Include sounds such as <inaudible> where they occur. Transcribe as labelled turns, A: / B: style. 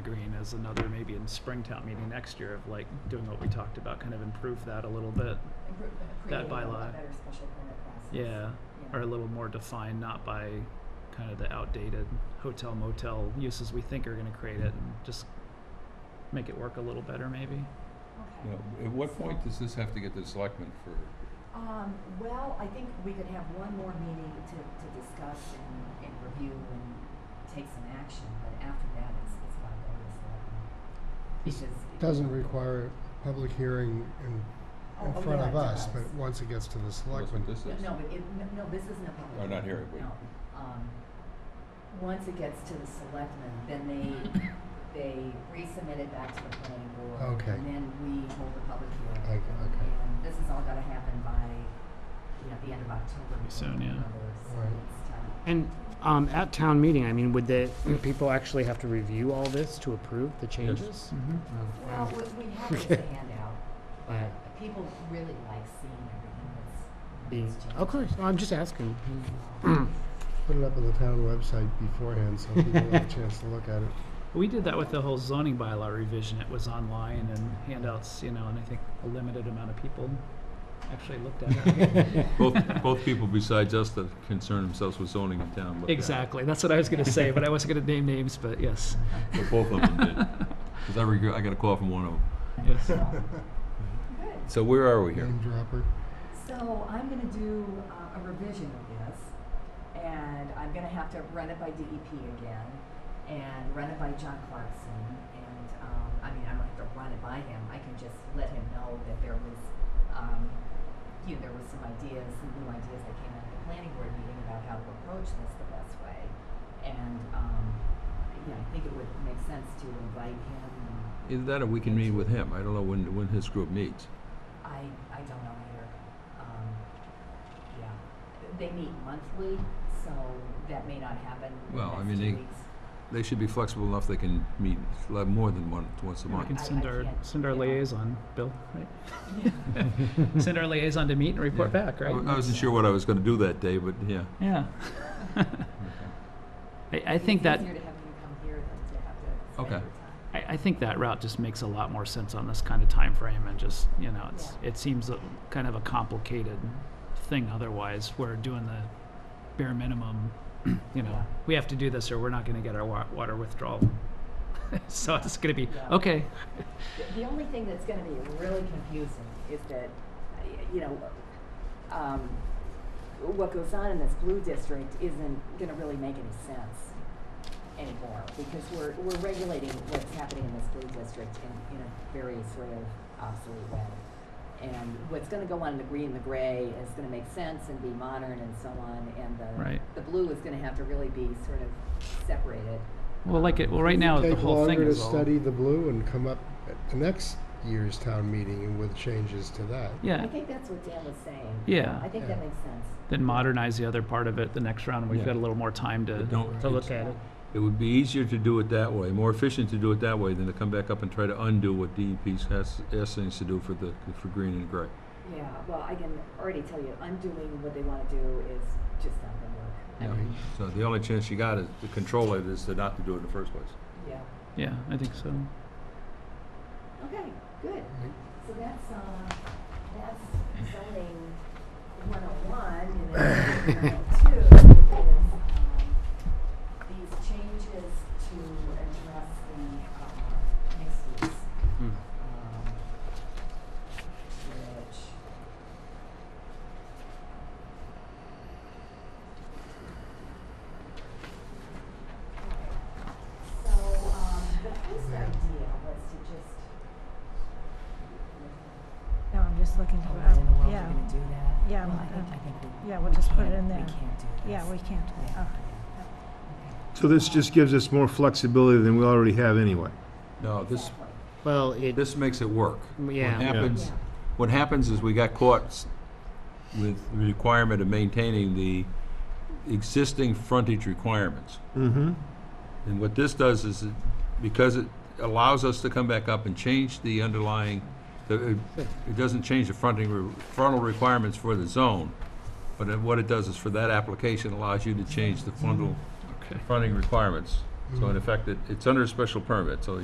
A: green is another, maybe in Springtown meeting next year of like doing what we talked about, kind of improve that a little bit.
B: Improve-
A: That
B: creating a
A: bylaw.
B: better special permit process.
A: Yeah,
B: Yeah.
A: or a little more defined, not by kind of the outdated hotel motel uses we think are gonna create it and just make it work a little better maybe.
B: Okay.
C: Now, at what point does this have to get to the selectmen for,
B: Um, well, I think we could have one more meeting to, to discuss and, and review and take some action, but after that, it's, it's gotta go to the selectmen.
D: This
B: Because it-
D: doesn't require a public hearing in,
B: Oh,
D: in
B: oh,
D: front
B: yeah,
D: of
B: it
D: us,
B: does.
D: but once it gets to the
C: that's what
D: selectmen,
C: this is?
B: No, no, but it, no- no, this isn't a public.
C: Oh, not here,
B: No, um, once it gets to the selectmen, then
D: <coughs>
B: they, they resubmit it back to the planning board.
D: Okay.
B: And then we hold a public hearing.
D: Okay, okay.
B: And this is all gotta happen by, you know, the end of October.
A: Pretty soon, yeah.
B: November, so
D: Right.
B: it's time.
E: And um, at town meeting, I mean, would the people actually have to review all this to approve the changes? Um,
A: Mm-hmm.
B: Well, we, we have it as a handout,
E: Yeah.
B: but people really like seeing everything that's.
E: Being,
B: that's changed.
E: of course. Mm-hmm. I'm just asking. <clears throat>
D: put it up on the town website beforehand so people have a chance to look at it.
A: We did that with the whole zoning bylaw revision. It was online and handouts, you know, and I think a limited amount of people actually looked at it.
C: <laughs> Both, both people besides us that concern themselves with zoning in town, but.
A: Exactly. That's what I was going to say, but I wasn't going to name names, but yes.
C: But both of them did, because I regret, I got a call from one of them.
A: <laughs> Yes.
D: <laughs>
B: Good.
C: So where are we here?
D: Name dropper.
B: So I'm gonna do uh, a revision of this, and I'm gonna have to run it by DEP again, and run it by John Clarkson, and, um, I mean, I don't have to run it by him, I can just let him know that there was, um, you know, there was some ideas, some new ideas that came out of the planning board meeting about how to approach this the best way. And, um, yeah, I think it would make sense to invite him, and
C: Either that or we can meet with him. I don't know when, when his group meets.
B: I, I don't know either. Um, yeah, they meet monthly, so that may not happen in the
C: Well, I
B: next
C: mean,
B: two
C: they-
B: weeks.
C: They should be flexible enough they can meet, like, more than one, once a
A: We can
C: month.
A: send
B: I- I
A: our
B: can't,
A: send our
B: you know.
A: liaison, Bill, right? send our liaison to meet and report
C: Yeah.
A: back,
C: I
A: right?
C: I wasn't sure what I was gonna do that day, but yeah.
A: Yeah. <laughs> I, I think that
B: It's easier to have you come here than to have to spend
C: Okay.
B: your time.
A: I, I think that route just makes a lot more sense on this kind of time frame and just you know it's it seems a, kind of a complicated thing otherwise where doing the bare minimum <clears throat> you know
B: Yeah.
A: we have to do this or we're not going to get our wa- water withdrawal <laughs> so it's going to be
B: Yeah.
A: okay
B: The- The only thing that's gonna be really confusing is that, uh, y- you know, um, what goes on in this blue district isn't gonna really make any sense anymore, because we're, we're regulating what's happening in this blue district in, in a very sort of obsolete way. And what's gonna go on in the green, the gray is gonna make sense and be modern and so on, and the,
A: Right.
B: the blue is gonna have to really be sort of separated.
A: well like it well right now the
D: Take
A: whole thing
D: longer to
A: is all,
D: study the blue and come up at the next year's town meeting and with changes to that.
A: yeah
B: I think that's what Dan was saying.
A: Yeah.
B: I think that makes sense.
A: then modernize the other part of it the next round and we've
C: Yeah.
A: got a little more time to
C: But don't-
A: to look at it
C: It would be easier to do it that way, more efficient to do it that way than to come back up and try to undo what DEP has, has things to do for the, for green and gray.
B: Yeah, well, I can already tell you, undoing what they want to do is just not gonna work. I
C: Yeah.
B: mean,
C: So the only chance you got is to control it is to not to do it in the first place.
B: Yeah,
A: yeah i think so
B: okay, good.
D: Right.
B: So that's, uh, that's zoning one oh one, and then one oh two is, um, these changes to address the, uh, mixed use.
E: Hmm.
B: um, which Okay. So, um, the first idea was to just.
F: No, I'm just looking
B: Oh,
F: for,
B: I didn't know
F: oh,
B: we
F: yeah,
B: were gonna do that.
F: Yeah,
B: Well,
F: we-
B: I think,
F: uh,
B: I think we.
F: yeah, we'll
B: we
F: just put it
B: can't-
F: in
B: We
F: there.
B: can't do this.
F: yeah, we can't,
B: Yeah.
F: oh,
G: So this just gives us more flexibility than we already have anyway.
C: No, this,
B: Exactly.
E: Well, it.
C: this makes it work.
E: Yeah.
C: What happens,
B: Yeah.
C: what happens is we got caught s- with the requirement of maintaining the existing frontage requirements.
G: Mm-hmm.
C: And what this does is, it- because it allows us to come back up and change the underlying, the- it it doesn't change the fronting, re- frontal requirements for the zone, but it- what it does is for that application allows you to change the frontal,
A: okay
C: fronting requirements. So in effect, it- it's under a special permit, so